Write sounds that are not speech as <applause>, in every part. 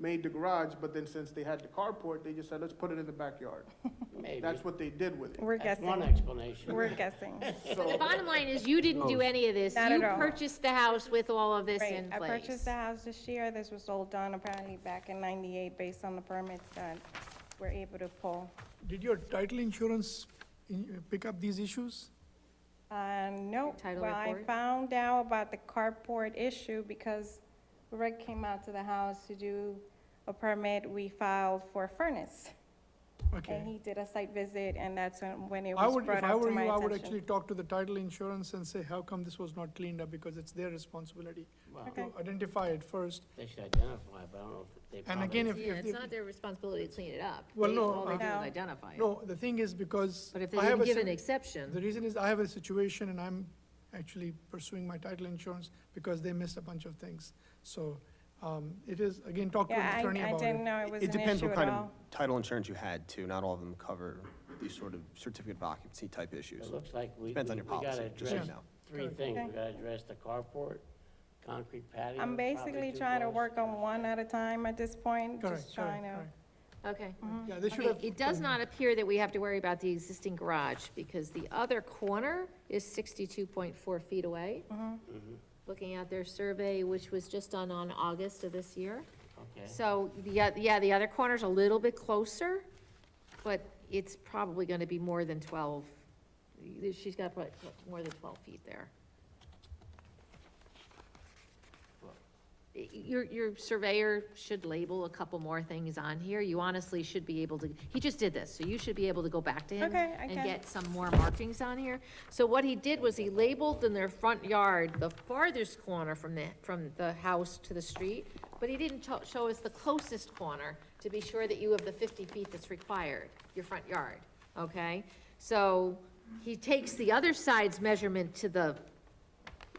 made the garage, but then since they had the carport, they just said, let's put it in the backyard. maybe. That's what they did with it. We're That's one guessing, explanation. we're <laughs> guessing. So- The bottom line is you didn't Oh. do any of this. Not at You all. purchased the house with all of this Right, in I place. purchased the house this year, this was sold done apparently back in ninety-eight based on the permits that we're able to pull. Did your title insurance in- pick up these issues? Uh, no, Title well, I report? found out about the carport issue because Rick came out to the house to do a permit, we filed for a furnace. And Okay. he did a site visit, and that's when when it I was would, brought if I up were to you, I my would actually attention. talk to the title insurance and say, how come this was not cleaned up? Because it's their responsibility Well, Okay. to identify it first. they should identify, but I don't know if they And probably. again, if, Yeah, if, it's they- not their responsibility to clean it up. Well, They- no, All they do uh, is identify it. no, the thing is because. But if they I have didn't a give an sim- The exception, reason is I have a situation and I'm actually pursuing my title insurance because they missed a bunch of things. So, um, it is, again, talk to Yeah, an I, attorney I about didn't it. know it was It an depends issue at what kind all. of title insurance you had too. Not all of them cover these sort of certificate of occupancy type issues. It looks like we, we we Depends on your gotta policy, just so you address know. three Okay. things. We gotta address the carport, concrete patio. I'm probably basically two trying to floors. work on one at a time at this point, Correct, just trying correct, to. Mm. correct. Okay. Yeah, they should Okay, have. it does not appear that we have to worry about the existing garage, because the other corner is sixty-two point four feet away. Mm-hmm. Mm-hmm. Looking at their survey, which was just done on August of this year. Okay. So, yeah, yeah, the other corner's a little bit closer, but it's probably gonna be more than twelve. She's got what, more than twelve feet there. Your, your surveyor should label a couple more things on here. You honestly should be able to, he just did this, so you should be able to go back to him Okay, I and can. get some more markings on here. So what he did was he labeled in their front yard, the farthest corner from the, from the house to the street, but he didn't cho- show us the closest corner to be sure that you have the fifty feet that's required, your front yard, okay? So he takes the other side's measurement to the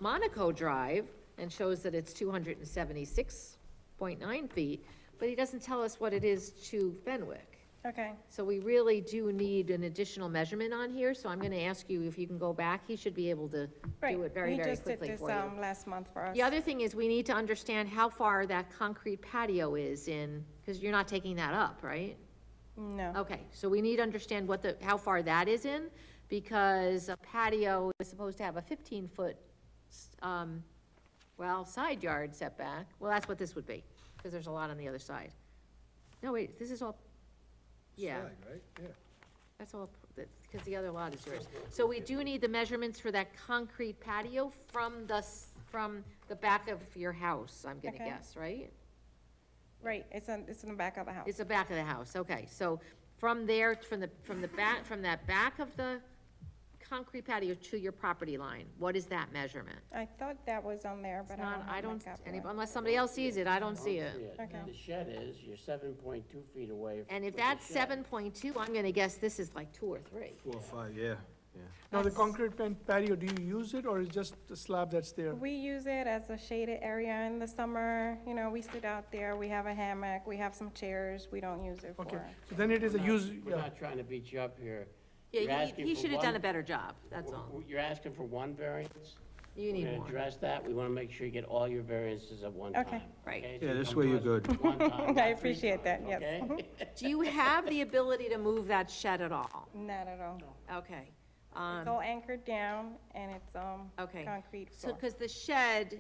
Monaco Drive and shows that it's two hundred and seventy-six point nine feet, but he doesn't tell us what it is to Fenwick. Okay, So we really do need an additional measurement on here, so I'm gonna ask you if you can go back, he should be able to right. do it very, He very just did quickly this for you. um, last month for us. The other thing is, we need to understand how far that concrete patio is in, because you're not taking that up, right? No, Okay, so we need to understand what the, how far that is in, because a patio is supposed to have a fifteen-foot, um, well, side yard setback. Well, that's what this would be, because there's a lot on the other side. No, wait, this is all, yeah. That's all, because the other lot is yours. So we do need the measurements for that concrete patio from the, s- from the back of your house, I'm gonna Okay. guess, right? right, it's in, it's in the back of the house. It's the back of the house, okay, so from there, from the, from the back, from that back of the concrete patio to your property line, what is that measurement? I thought that was on there, It's but I not, don't I have my don't, copy. any- unless somebody else sees it, I don't I see it. Okay. The shed is, you're seven point two feet away. And if with the that's shed. seven point two, I'm gonna guess this is like two or three. Four or five, yeah, yeah. Now, the That's- concrete pan- patio, do you use it or is just the slab that's there? We use it as a shaded area in the summer, you know, we sit out there, we have a hammock, we have some chairs, we don't use it Okay, for. so then it is a We're not- use, We're yeah, not trying to beat you up here. You're Yeah, he, asking he for should have done one- a better job, that's all. w- You're asking for one variance? You need We're gonna more. address that, we wanna make sure you get all your variances at one time. Okay. Right. okay? Yeah, So this come way to you're us good. one <laughs> time, not I three appreciate that, times, yes. <laughs> okay? Do you have the ability to move that shed at all? Not at all. Okay. um, It's all anchored down and it's, um, Okay. concrete So, floor. because the shed,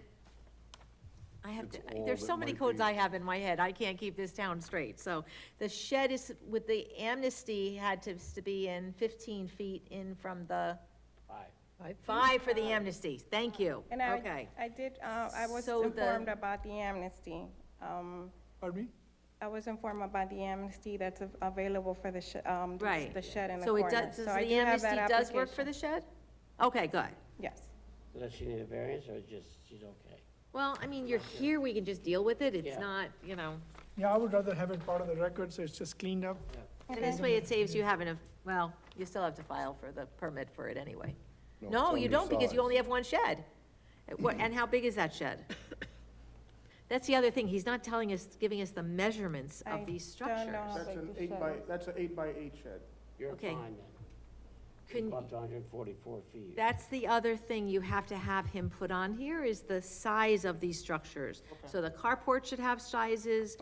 I have, to. It's all there's so that many might codes be- I have in my head, I can't keep this town straight. So the shed is, with the amnesty, had to, to be in 15 feet in from the, Five. five for the amnesty, thank you, And okay. I, I did, uh, I was So the- informed about the amnesty. Um, pardon me? I was informed about the amnesty that's av- available for the, sh- um, the s- Right. the shed in the So it corner. does, so I the do have amnesty that does work for the application. shed? Okay, good. Yes. So Does she need a variance, or just, she's okay? Well, I mean, you're here, we can just deal with it, it's Yeah. not, you know, Yeah, I would rather have it part of the record, so it's just cleaned up. and this way it saves you having to, well, you still have to file for the permit for it anyway. No, you don't, because you only have one shed. Uh, what- And how big is that shed? That's the other thing, he's not telling us, giving us the measurements I of these don't know. Like structures. That's an the eight by, shed. that's an eight by eight shed. You're Okay. fine then. Couldn't- You're up to 144 feet. That's the other thing you have to have him put on here, is the size of these structures. So the carport should have sizes,